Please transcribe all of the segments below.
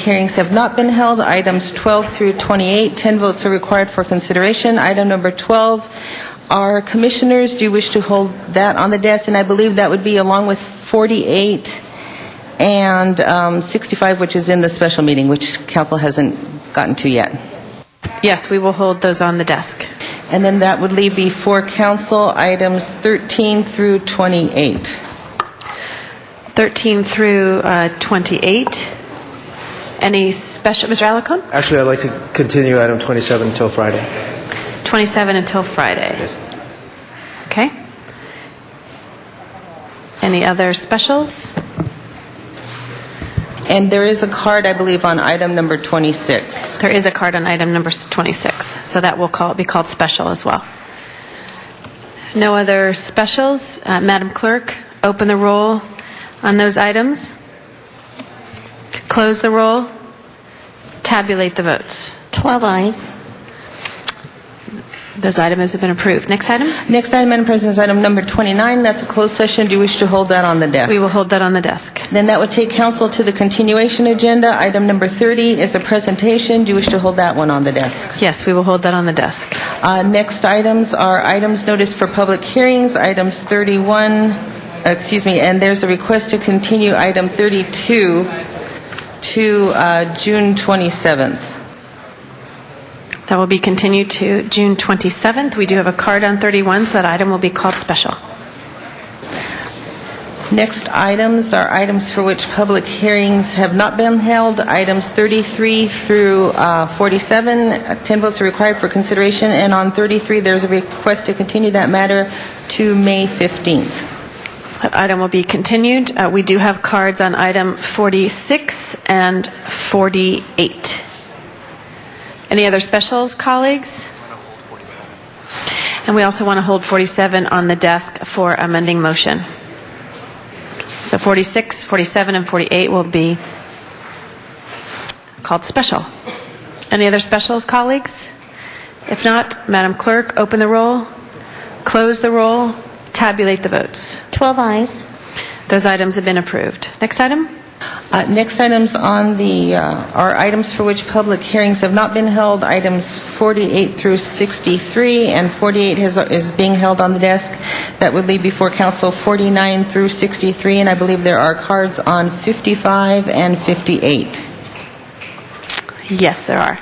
Hearings have not been held. Items 12 through 28, 10 votes are required for consideration. Item number 12 are commissioners. Do you wish to hold that on the desk? And I believe that would be along with 48 and um, 65, which is in the special meeting, which council hasn't gotten to yet. Yes, we will hold those on the desk. And then that would leave before council items 13 through 28. 13 through uh, 28. Any special, Mr. Alacon? Actually, I'd like to continue item 27 until Friday. 27 until Friday. Okay. Any other specials? And there is a card, I believe, on item number 26. There is a card on item number 26, so that will call, be called special as well. No other specials. Uh, Madam Clerk, open the roll on those items. Close the roll. Tabulate the votes. 12 eyes. Those items have been approved. Next item? Next item, Madam President, is item number 29. That's a closed session. Do you wish to hold that on the desk? We will hold that on the desk. Then that would take council to the continuation agenda. Item number 30 is a presentation. Do you wish to hold that one on the desk? Yes, we will hold that on the desk. Uh, Next items are items noticed for public hearings, items 31, excuse me, and there's a request to continue item 32 to uh, June 27th. That will be continued to June 27th. We do have a card on 31, so that item will be called special. Next items are items for which public hearings have not been held, items 33 through uh, 47. Uh, 10 votes are required for consideration, and on 33, there's a request to continue that matter to May 15th. That item will be continued. Uh, We do have cards on item 46 and 48. Any other specials, colleagues? And we also want to hold 47 on the desk for amending motion. So 46, 47, and 48 will be called special. Any other specials, colleagues? If not, Madam Clerk, open the roll, close the roll, tabulate the votes. 12 eyes. Those items have been approved. Next item? Uh, Next items on the, uh, are items for which public hearings have not been held, items 48 through 63, and 48 has- is being held on the desk. That would leave before council 49 through 63, and I believe there are cards on 55 and 58. Yes, there are.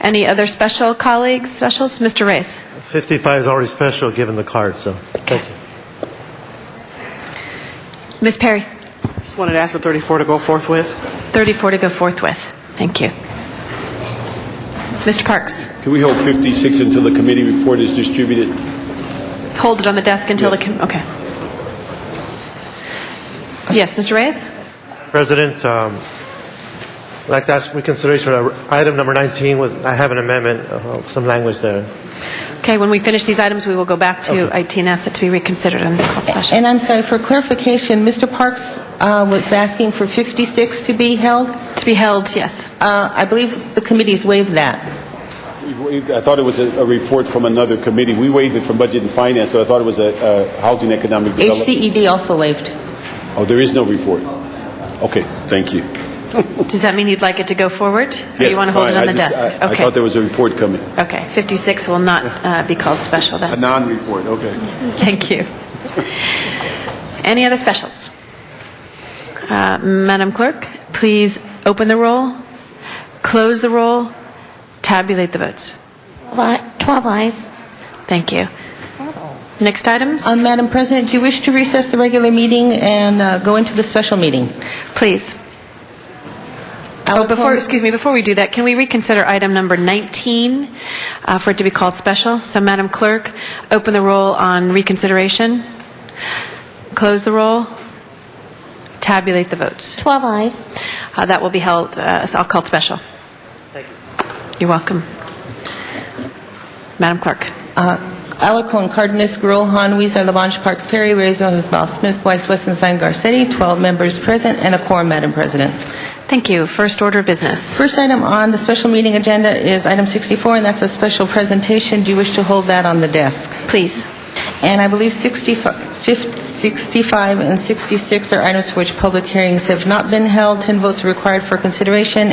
Any other special colleagues, specials? Mr. Reyes? 55 is already special, given the card, so, thank you. Ms. Perry? Just wanted to ask for 34 to go forth with. 34 to go forthwith. Thank you. Mr. Parks? Can we hold 56 until the committee report is distributed? Hold it on the desk until the, com- okay. Yes, Mr. Reyes? President, um, I'd like to ask for consideration of item number 19, with, I have an amendment, uh, some language there. Okay, when we finish these items, we will go back to IT and ask it to be reconsidered and called special. And I'm sorry, for clarification, Mr. Parks uh, was asking for 56 to be held. To be held, yes. Uh, I believe the committees waived that. We waived- I thought it was a a report from another committee. We waived it from Budget and Finance, but I thought it was a uh, Housing Economic Development. HCED E also waived. Oh, there is no report. Okay, thank you. Does that mean you'd like it to go forward? Or Yes, Oh, you want to hold it fine. on I the just- desk? I- I Okay. thought there was a report coming. Okay, 56 will not uh, be called special A then. non-report, okay. Thank you. Any other specials? Uh, Madam Clerk, please open the roll, close the roll, tabulate the votes. 12 eyes. Thank you. Next items, Uh, Madam President, do you wish to recess the regular meeting and uh, go into the special meeting? please. I'll Oh, before, call- excuse me, before we do that, can we reconsider item number 19 uh, for it to be called special? So Madam Clerk, open the roll on reconsideration, close the roll, tabulate the votes. 12 eyes. Uh, That will be held, uh, I'll call it special. Thank you. You're welcome. Madam Clerk. Uh, Alarcon, Cardenas, Gruel, Han, Weezer, Labange, Parks, Perry, Reyes, Mizbah, Smith, Weiss, Westenstein, Garcetti, 12 members present and a quorum, Madam President. Thank you. First order of business. First item on the special meeting agenda is item 64, and that's a special presentation. Do you wish to hold that on the desk? Please. And I believe 65 fif- 65 and 66 are items for which public hearings have not been held. 10 votes are required for consideration,